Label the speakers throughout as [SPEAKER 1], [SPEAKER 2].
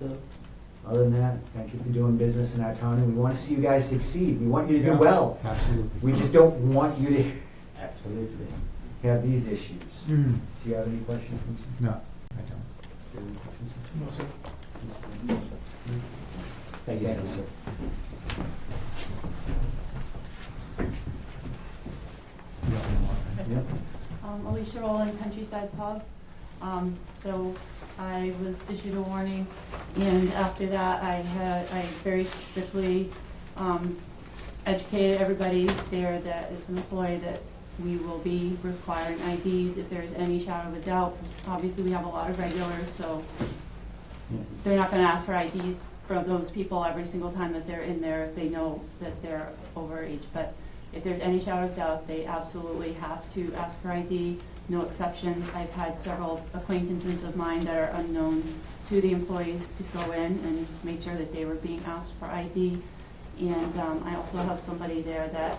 [SPEAKER 1] though. Other than that, thank you for doing business in our town, and we want to see you guys succeed. We want you to
[SPEAKER 2] Yeah.
[SPEAKER 1] do well.
[SPEAKER 3] Absolutely.
[SPEAKER 1] We just don't want you to, absolutely, have these issues. Do
[SPEAKER 2] Mm,
[SPEAKER 1] you have any questions? Vincent?
[SPEAKER 2] No, I don't.
[SPEAKER 1] Do you have any questions?
[SPEAKER 2] No, sir.
[SPEAKER 1] Thank you, Madam Secretary.
[SPEAKER 2] You don't need more.
[SPEAKER 1] Yep.
[SPEAKER 4] Um, Alicia Rowland, Countryside Pub. Um, so I was issued a warning, and after that, I had, I very strictly, um, educated everybody there that is an employee that we will be requiring IDs if there is any shadow of a doubt. Obviously, we have a lot of regulars, so they're not gonna ask for IDs from those people every single time that they're in there if they know that they're overage. But if there's any shadow of doubt, they absolutely have to ask for ID, no exceptions. I've had several acquaintances of mine that are unknown to the employees to go in and make sure that they were being asked for ID. And um, I also have somebody there that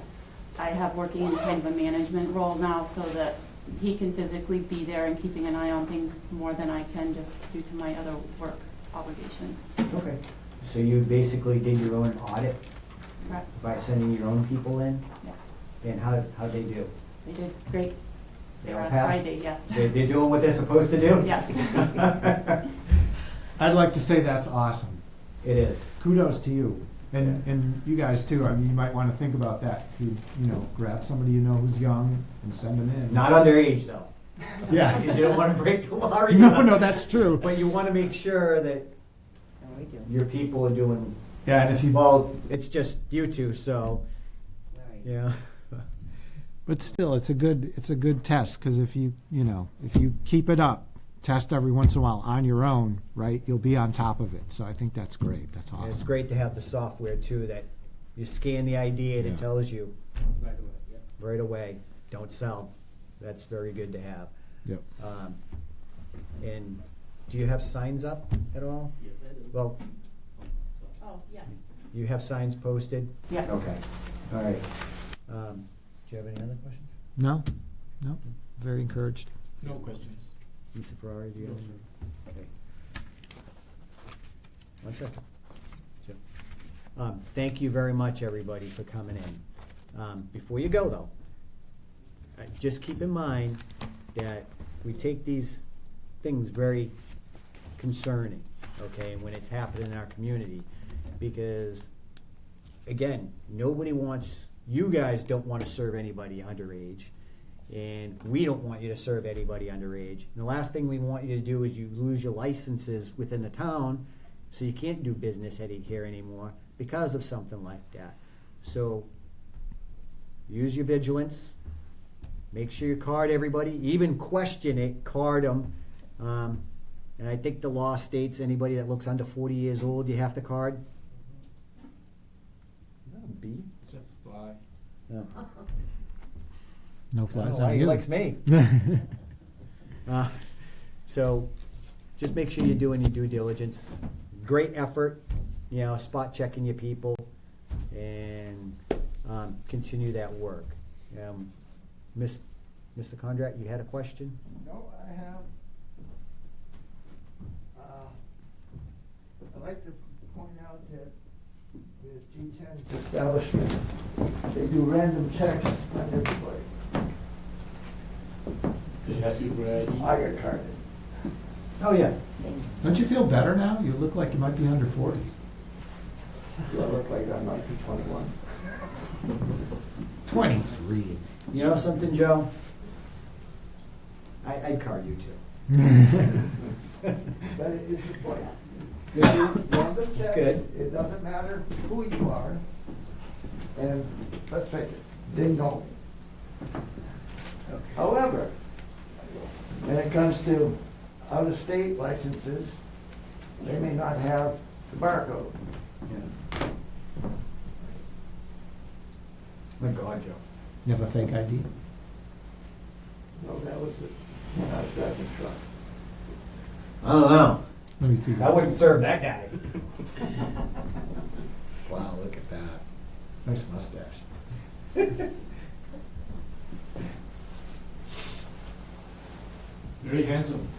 [SPEAKER 4] I have working in kind of a management role now so that he can physically be there and keeping an eye on things more than I can just due to my other work obligations.
[SPEAKER 1] Okay, so you basically did your own audit
[SPEAKER 4] Correct?
[SPEAKER 1] by sending your own people in,
[SPEAKER 4] Yes.
[SPEAKER 1] and how, how'd they do?
[SPEAKER 4] They did great.
[SPEAKER 1] They
[SPEAKER 4] They were
[SPEAKER 1] all
[SPEAKER 4] on
[SPEAKER 1] passed?
[SPEAKER 4] Friday, yes.
[SPEAKER 1] They- They're doing what they're supposed to do?
[SPEAKER 4] Yes.
[SPEAKER 2] I'd like to say that's awesome.
[SPEAKER 1] It is.
[SPEAKER 2] Kudos to you. And, and you guys too. I mean, you might want to think about that. If You, you know, grab somebody you know who's young and send them in.
[SPEAKER 1] Not underage, though,
[SPEAKER 2] Yeah.
[SPEAKER 1] because you don't want to break the law. either.
[SPEAKER 2] No, no, that's true.
[SPEAKER 1] But you want to make sure that your people are doing,
[SPEAKER 2] Yeah, and if you,
[SPEAKER 1] well, it's just you two, so, yeah.
[SPEAKER 2] but still, it's a good, it's a good test because if you, you know, if you keep it up, test every once in a while on your own, right? You'll be on top of it. So I think that's great. That's
[SPEAKER 1] And
[SPEAKER 2] awesome.
[SPEAKER 1] it's great to have the software too, that you scan the ID and
[SPEAKER 2] Yeah.
[SPEAKER 1] it tells you. Right away, don't sell. That's very good to have.
[SPEAKER 2] Yep.
[SPEAKER 1] Um, And do you have signs up at all? Yes, I do. Well,
[SPEAKER 4] Oh, yes.
[SPEAKER 1] you have signs posted?
[SPEAKER 4] Yes.
[SPEAKER 1] Okay, all right. Um, Do you have any other questions?
[SPEAKER 2] No, no, very encouraged.
[SPEAKER 3] No questions.
[SPEAKER 1] Mr. Ferrari, do you have? any? Okay. One second. Sure. Um, Thank you very much, everybody, for coming in. Um, Before you go, though, uh, just keep in mind that we take these things very concerning, okay, when it's happening in our community. Because, again, nobody wants, you guys don't want to serve anybody underage. And we don't want you to serve anybody underage. And the last thing we want you to do is you lose your licenses within the town, so you can't do business any- here anymore because of something like that. So, use your vigilance, make sure you card everybody, even question it, card them. Um, and I think the law states anybody that looks under forty years old, you have to card. Is that a bee?
[SPEAKER 3] It's a fly.
[SPEAKER 1] No.
[SPEAKER 2] No
[SPEAKER 1] I don't know
[SPEAKER 2] flies
[SPEAKER 1] why
[SPEAKER 2] on
[SPEAKER 1] He
[SPEAKER 2] you.
[SPEAKER 1] likes me. Uh, So, just make sure you're doing your due diligence. Great effort, you know, spot checking your people and um, continue that work. Um, Miss, Mr. Condrat, you had a question?
[SPEAKER 5] No, I have. uh, I'd like to point out that with G 10s establishment, they do random checks on everybody.
[SPEAKER 3] They ask you for ID?
[SPEAKER 5] I got carded.
[SPEAKER 1] Oh, yeah.
[SPEAKER 2] Don't you feel better now? You look like you might be under forty.
[SPEAKER 5] Do I look like I'm nineteen twenty-one?
[SPEAKER 2] Twenty-three.
[SPEAKER 1] You know something, Joe? I, I'd card you too.
[SPEAKER 5] But it is the point. They do random
[SPEAKER 1] That's
[SPEAKER 5] checks.
[SPEAKER 1] good.
[SPEAKER 5] It doesn't matter who you are. And let's face it, they know me. However, when it comes to out-of-state licenses, they may not have the barcode.
[SPEAKER 1] Yeah. My God, Joe.
[SPEAKER 2] You have a fake ID?
[SPEAKER 5] No, that was it, when I was driving the truck.
[SPEAKER 1] I don't know.
[SPEAKER 2] Let me see.
[SPEAKER 1] I
[SPEAKER 2] that.
[SPEAKER 1] wouldn't serve that guy.
[SPEAKER 2] Wow, look at that. Nice mustache.
[SPEAKER 3] Very handsome.